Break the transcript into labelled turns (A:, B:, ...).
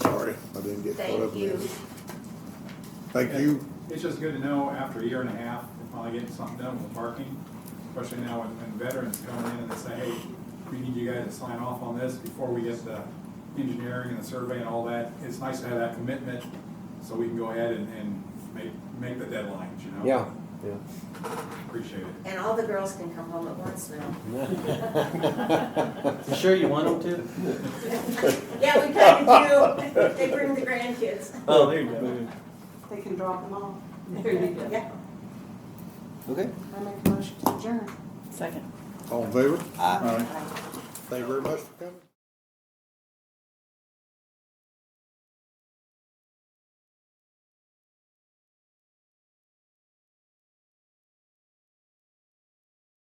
A: didn't get caught up
B: Thank
A: in
B: you.
A: it. Thank you.
C: It's just good to know after a year and a half, we're finally getting something done with parking, especially now when, when veterans come in and they say, hey, we need you guys to sign off on this before we get the engineering and the survey and all that. It's nice to have that commitment, so we can go ahead and, and make, make the deadlines, you know?
D: Yeah, yeah.
C: Appreciate it.
B: And all the girls can come home at once now.
E: You sure you want them
B: Yeah, we kind of do. They bring the grandkids.
E: to? Oh, there you go.
F: They can drop them off.
B: There you go. Yeah.
D: Okay.
F: I make a motion to adjourn.
G: Second.
A: All in favor? Aye. Thank you very much for coming.